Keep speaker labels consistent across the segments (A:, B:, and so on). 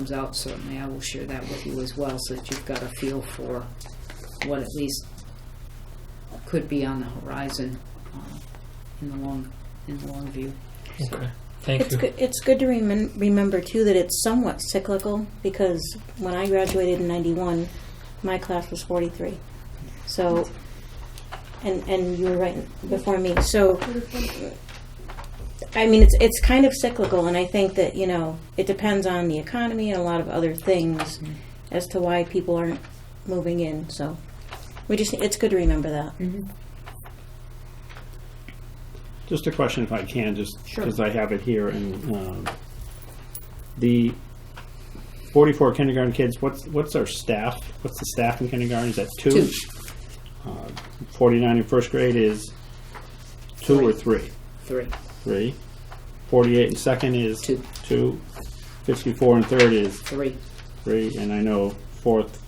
A: comes out, certainly I will share that with you as well, so that you've got a feel for what at least could be on the horizon um, in the long, in the long view.
B: Okay, thank
C: It's
B: you.
C: good, it's good to remem- remember too that it's somewhat cyclical because when I graduated in 91, my class was 43. So, and, and you were right before me. So, I mean, it's, it's kind of cyclical and I think that, you know, it depends on the economy and a lot of other things
A: Mm-hmm.
C: as to why people aren't moving in. So, we just, it's good to remember that.
A: Mm-hmm.
D: Just a question if I can, just
A: Sure.
D: because I have it here and, um, the forty-four kindergarten kids, what's, what's our staff? What's the staff in kindergarten? Is that two?
A: Two.
D: Uh, Forty-nine in first grade is two or three?
A: Three.
D: Three. Forty-eight in second is?
A: Two.
D: Two. Fifty-four in third is
A: Three.
D: three, and I know fourth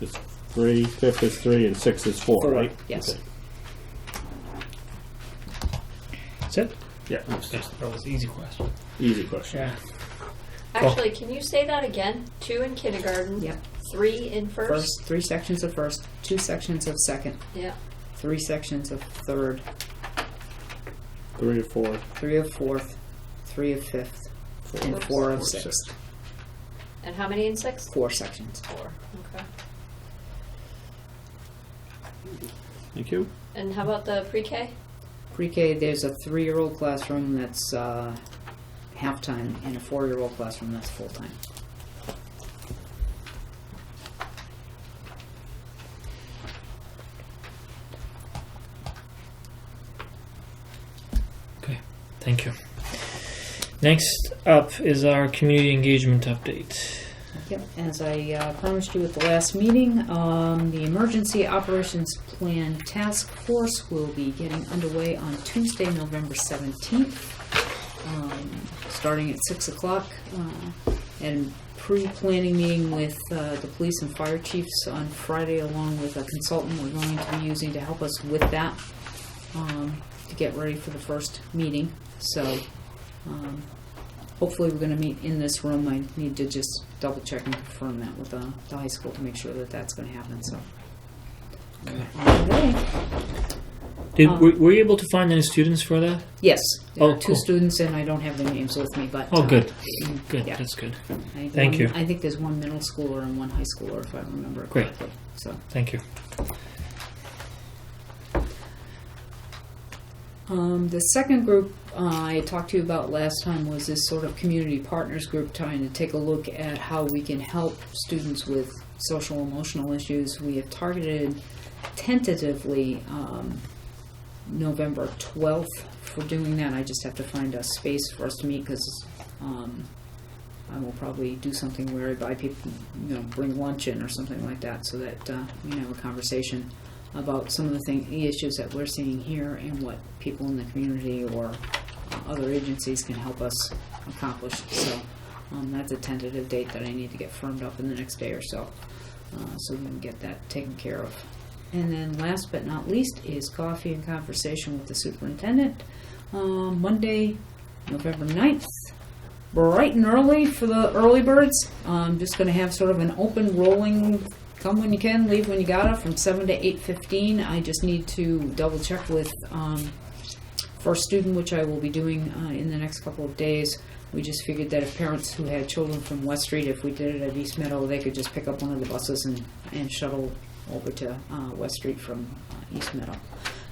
D: is three, fifth is three, and sixth is four,
A: Four,
D: right?
A: yes.
D: Okay.
B: That's it?
D: Yeah,
B: That's- That was an easy question.
D: easy question.
B: Yeah.
E: Actually, can you say that again? Two in kindergarten.
A: Yep.
E: Three in first.
A: First, three sections of first, two sections of second,
E: Yeah.
A: three sections of third,
D: Three or four,
A: three of fourth, three of fifth, and
E: Oops.
A: four of
D: Four, six.
A: sixth.
E: And how many in sixth?
A: Four sections.
E: Four. Okay.
D: thank you.
E: And how about the pre-K?
A: Pre-K, there's a three-year-old classroom that's uh, half-time, and a four-year-old classroom that's full-time.
B: Okay, thank you. Next up is our community engagement update.
A: Yep, as I uh, promised you at the last meeting, um, the Emergency Operations Plan Task Force will be getting underway on Tuesday, November 17th, um, starting at 6 o'clock, uh, and pre-planning meeting with uh, the police and fire chiefs on Friday, along with a consultant we're going to be using to help us with that, um, to get ready for the first meeting. So, um, Hopefully, we're gonna meet in this room. I need to just double check and confirm that with uh, the high school to make sure that that's gonna happen, so. Okay.
B: Did,
A: Um,
B: were, were you able to find any students for that?
A: Yes, there
B: Oh,
A: are two
B: cool.
A: students and I don't have their names with me, but.
B: Oh,
A: uh,
B: good,
A: mm,
B: good,
A: yeah.
B: that's good.
A: I think
B: Thank
A: one-
B: you.
A: I think there's one middle schooler and one high schooler, if I remember
B: Great.
A: correctly, so.
B: Thank you.
A: Um, the second group uh, I talked to you about last time was this sort of community partners group trying to take a look at how we can help students with social emotional issues. We have targeted tentatively um, November 12th for doing that. I just have to find a space for us to meet because um, I will probably do something where I buy people, you know, bring lunch in or something like that so that uh, we can have a conversation about some of the thing, the issues that we're seeing here and what people in the community or uh, other agencies can help us accomplish. So um, that's a tentative date that I need to get firmed up in the next day or so, uh, so we can get that taken care of. And then last but not least is coffee and conversation with the superintendent. Um, Monday, November 9th, bright and early for the early birds. I'm just going to have sort of an open rolling come when you can, leave when you gotta from 7 to 8.15. I just need to double check with um, first student, which I will be doing uh, in the next couple of days. We just figured that if parents who had children from West Street, if we did it at East Meadow, they could just pick up one of the buses and, and shuttle over to uh, West Street from uh, East Meadow.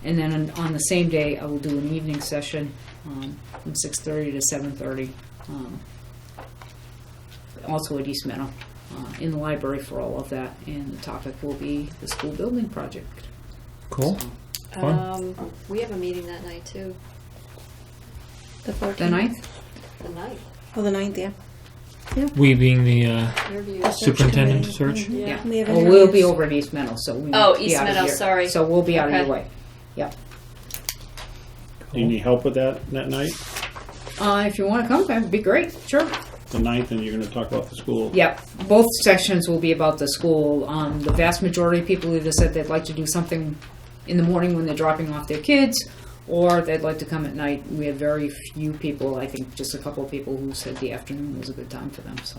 A: And then on, on the same day, I will do an evening session um, from 6.30 to 7.30, um, also at East Meadow, uh, in the library for all of that. And the topic will be the school building project.
B: Cool.
A: So,
B: Fun.
E: Um, we have a meeting that night too.
C: The 14th.
A: the ninth?
E: The night
C: Oh, the 9th, yeah.
B: We being the uh,
E: interviews.
C: Search
B: superintendent
C: committee.
B: search.
C: Mhm.
E: Yeah.
C: We have
A: Well, Mm-hmm. Oh, we'll be
C: interviews.
A: over in East Meadow, so we.
E: Oh,
A: won't be
E: East
A: out of
E: Meadow,
A: here.
E: sorry.
A: So we'll be out of your
E: Okay.
A: way. Yep.
D: Do you need help with that that night?
A: Uh, if you wanna come, that'd be great, sure.
D: The ninth, and you're going to talk about the school?
A: Yep, both sessions will be about the school. Um, the vast majority of people either said they'd like to do something in the morning when they're dropping off their kids, or they'd like to come at night. We had very few people, I think just a couple of people who said the afternoon was a good time for them, so.